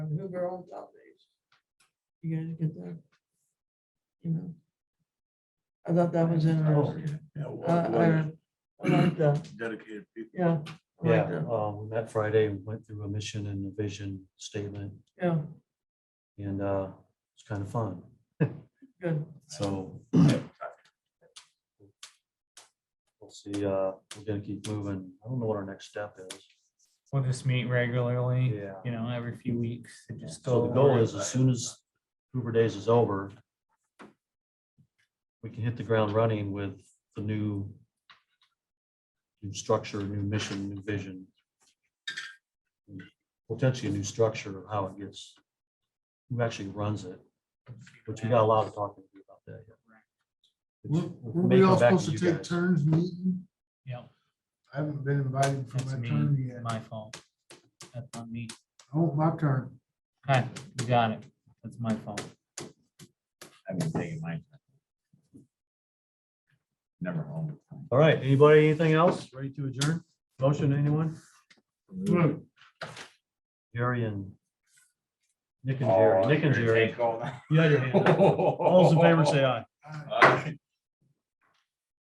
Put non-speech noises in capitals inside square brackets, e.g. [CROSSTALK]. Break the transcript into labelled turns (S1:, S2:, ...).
S1: their own Saturdays. You guys get that? You know? I thought that was interesting.
S2: Yeah,
S1: Uh, I, I like that,
S2: dedicated people.
S1: yeah. I like
S3: Yeah,
S1: that.
S3: uh, we met Friday, we went through a mission and a vision statement,
S1: Yeah,
S3: and uh, it's kind of fun,
S1: good.
S3: so. We'll see, uh, we're gonna keep moving, I don't know what our next step is.
S4: We'll just meet regularly,
S3: Yeah.
S4: you know, every few weeks and just
S3: So
S4: go.
S3: the goal
S4: over it.
S3: is as soon as Hoover Days is over, we can hit the ground running with the new new structure, new mission, new vision. Potentially a new structure of how it gets, who actually runs it, which we got a lot of talking to do about that. yet.
S5: Were
S3: Which
S5: were
S3: may
S5: we
S3: come
S5: all
S3: back
S5: supposed to
S3: you
S5: take
S3: guys.
S5: turns meeting?
S4: Yep,
S5: I haven't been invited for
S4: that's
S5: my
S4: me,
S5: turn yet.
S4: my fault. That's not me.
S5: Oh, my turn.
S4: Hi, you got it. That's my fault.
S6: I've been taking mine. Never home.
S3: All right, anybody, anything else? Ready to adjourn? Motion, anyone? Jerry and
S2: Oh, [LAUGHS]
S3: Nick and Jerry, Nick and Jerry. You had your hand up. All those in favor say aye.
S6: Aye.